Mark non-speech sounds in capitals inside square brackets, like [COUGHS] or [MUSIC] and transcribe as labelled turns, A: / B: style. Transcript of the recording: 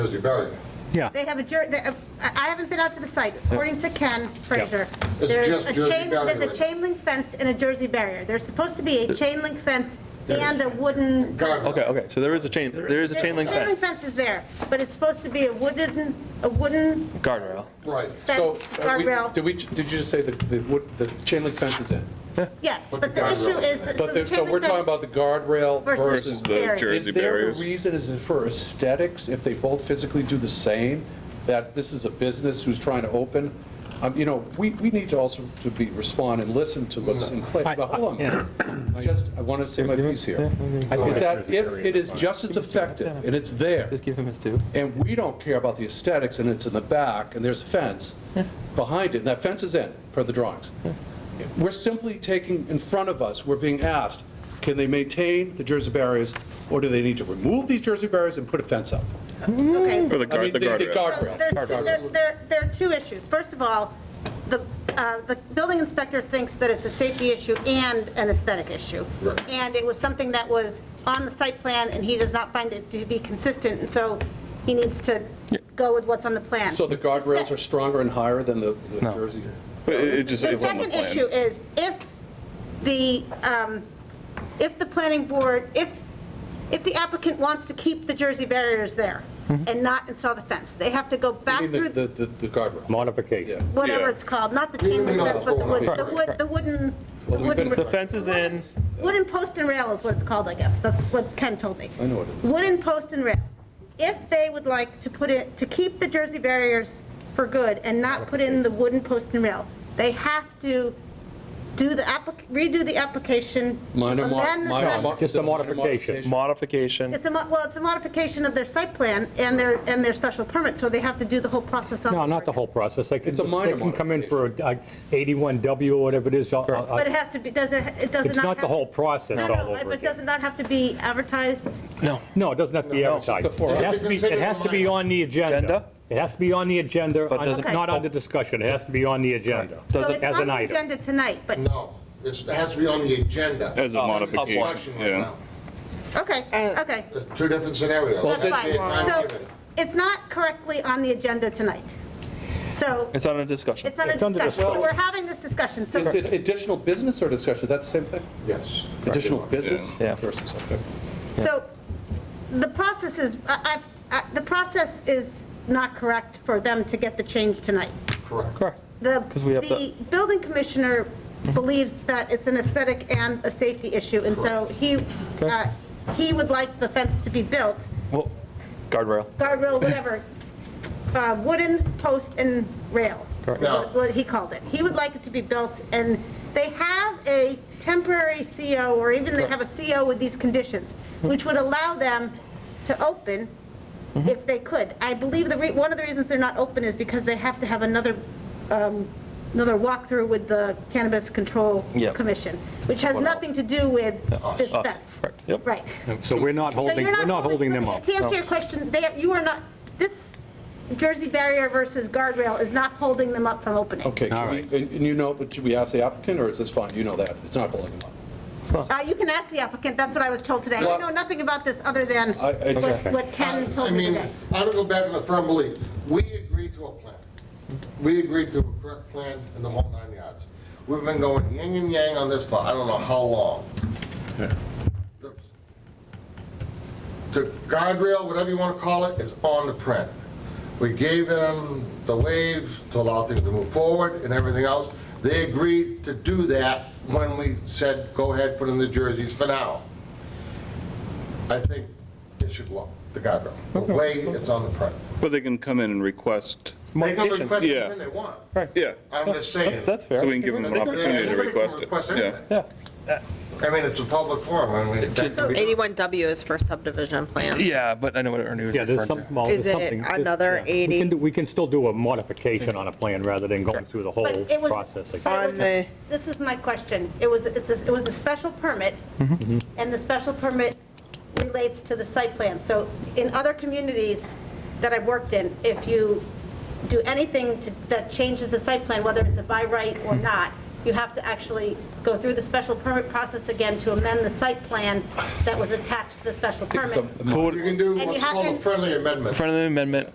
A: busy burying it.
B: Yeah.
C: They have a, jur- they- I I haven't been out to the site. According to Ken Frazier,
A: It's
C: there's
A: just
C: a
A: Jersey
C: chain,
A: barrier,
C: there's a
A: right?
C: chain link fence and a Jersey barrier. There's supposed to be a chain link fence and a wooden.
A: God,
B: Okay, okay, so there is a chain, there is a chain link
C: The Chain link
B: fence,
C: fence is there, but it's supposed to be a wooden, a wooden,
B: guardrail.
A: Right.
D: So,
C: Fence,
D: uh, we-
C: guardrail.
D: did we, did you just say that the, wood- the chain link fence is in?
C: yes,
A: But
C: but
A: the
C: the issue
A: guardrail.
C: is that.
D: But,
C: the
D: the- so
C: chain
D: we're
C: link
D: talking
C: fence-
D: about the guardrail
C: Versus
D: versus the.
C: barrier.
E: Jersey barriers.
D: Is there a reason, is it for aesthetics, if they both physically do the same, that this is a business who's trying to open? Um, you know, we, we need to also to be, respond and listen to what's in play. But hold
B: yeah.
D: on, [COUGHS] I just, I want to say my piece here. Is that if it is just as effective, and it's there,
B: give him his two.
D: and we don't care about the aesthetics, and it's in the back, and there's a fence behind it, and that fence is in, per the drawings. We're simply taking, in front of us, we're being asked, can they maintain the Jersey barriers, or do they need to remove these Jersey barriers and put a fence up?
C: Okay.
E: Or the
D: I mean,
E: guard, the guardrail.
C: So
D: guardrail.
C: There's, there, there, there are two issues. First of all, the, uh, the building inspector thinks that it's a safety issue and an aesthetic issue.
A: Right.
C: And it was something that was on the site plan, and he does not find it to be consistent, and so he needs to go with what's on the plan.
D: So the guardrails are stronger and higher than the the Jersey?
E: But it it just,
C: The
E: it's on the
C: second issue
E: plan.
C: is if the, um, if the planning board, if, if the applicant wants to keep the Jersey barriers there and not install the fence, they have to go back
D: I Mm-hmm. mean,
C: through.
D: the, the, the the guardrail.
F: Modification.
C: whatever
E: Yeah.
C: it's called, not the chain link
A: No,
C: fence, but the
A: no,
C: wood,
A: no.
C: the wood, the wooden, the
D: Well, we've
C: wooden.
D: been-
B: The fence is in,
C: Wooden post and rail is what it's called, I guess, that's what Ken told me.
D: I know what it is.
C: Wooden post and rail. If they would like to put it, to keep the Jersey barriers for good and not put in the wooden post and rail, they have to do the, applic- redo the application,
D: Minor mo-
C: amend the
D: minor mo-
C: special.
F: Just a
D: is it minor
F: modification.
B: modification,
C: It's a, mo- well, it's a modification of their site plan and their, and their special permit, so they have to do the whole process all
F: No,
C: over
F: not the
C: again.
F: whole process. They can,
D: It's a
F: they
D: minor
F: can come in for a- a 81W or whatever it is. Uh,
C: But it
F: uh,
C: has to be, does it, it does not
F: It's not the
C: have-
F: whole process
C: No,
F: all
C: no,
F: over
C: but does
F: again.
C: it not have to be advertised?
F: No, it doesn't have to be advertised.
D: Before-
F: It has to be, it has to be on the
B: Agenda?
F: agenda. It has to be on the agenda,
B: But does
C: it-
F: not under discussion. It has to be on the agenda.
B: Does
C: So
B: it-
C: it's
F: as
C: on
F: an
C: the
F: item.
C: agenda tonight, but,
A: No, it's- it has to be on the agenda.
E: As a
A: It's under
E: modification,
A: discussion right
E: yeah.
A: now.
C: okay, okay,
A: There's Two different scenarios.
C: that's
A: It's
C: fine.
A: time
C: So
A: given.
C: it's not correctly on the agenda tonight. So
B: it's on a discussion.
C: it's under
F: It's under
C: discussion, so
F: discussion.
C: we're having this discussion, so
D: Is it additional business or discussion? That's the same thing?
A: Yes.
D: Additional business
B: Yeah.
D: versus, okay.
C: So the process is, I- I've, I- the process is not correct for them to get the change tonight.
A: Correct.
B: Correct.
C: The,
B: 'Cause we have
C: the building commissioner believes that it's an aesthetic and a safety issue, and so he, uh, he would like the fence to be built,
B: Well, guardrail.
C: guardrail, whatever, uh, wooden post and rail.
B: Correct.
A: No.
C: What he called it. He would like it to be built, and they have a temporary CO, or even they have a CO with these conditions, which would allow them to open
B: Mm-hmm.
C: if they could. I believe the, re- one of the reasons they're not open is because they have to have another, um, another walkthrough with the Cannabis Control
B: Yep.
C: Commission, which has
B: One out.
C: nothing to do with this
B: us.
C: fence.
B: Correct. Yep.
C: Right.
F: So we're not
C: So
F: holding,
C: you're
F: we're not holding
C: so
F: them
C: to-
F: up.
C: To answer your question, they, you are not, this Jersey barrier versus guardrail is not holding them up from opening.
D: Okay, can
F: All
D: we-
F: right.
D: and and you know, but should we ask the applicant, or is this fine? You know that, it's not holding them
C: Uh, you can ask the applicant, that's what I was told today. I
D: Well-
C: know nothing about this other than
D: I- I-
C: what what Ken
A: I
C: told me
A: mean,
C: today.
A: I don't go back on the firm belief. We agreed to a plan. We agreed to a correct plan and the whole nine yards. We've been going yin and yang on this for I don't know how long. The the guardrail, whatever you want to call it, is on the print. We gave them the wave to allow things to move forward and everything else. They agreed to do that when we said, go ahead, put in the jerseys for now. I think it should go up, the guardrail, the way it's on the print.
E: But they can come in and request,
A: They can
B: Modification.
A: request
E: Yeah.
A: anything they want.
E: yeah,
A: I'm just saying.
B: That's, that's fair.
E: so we can give them
A: They
E: an
A: can-
E: opportunity to
A: anybody can
E: request it.
A: request
E: Yeah,
A: anything.
B: Yeah,
A: I mean, it's a public forum, I mean, that can be-
G: 81W is for subdivision plan.
B: yeah, but I know what Ernie was
F: Yeah,
B: referring
F: there's
B: to.
F: some, well, there's
G: Is it
F: something. there's-
G: another
F: yeah. We
G: 80?
F: can do- We can still do a modification on a plan rather than going through the
C: But
F: whole
C: it was,
F: process. again.
C: but it was-
G: On the-
C: this is my question. It was, it's, a- it was a special permit, and the special permit relates to the site plan. So in other communities that I've worked in, if you do anything to- that changes the site plan, whether it's a by right or not, you have to actually go through the special permit process again to amend the site plan that was attached to the special permit.
D: It's a-
A: You can do
C: And you
A: what's
C: have
A: called a
C: to-
A: friendly amendment.
B: friendly amendment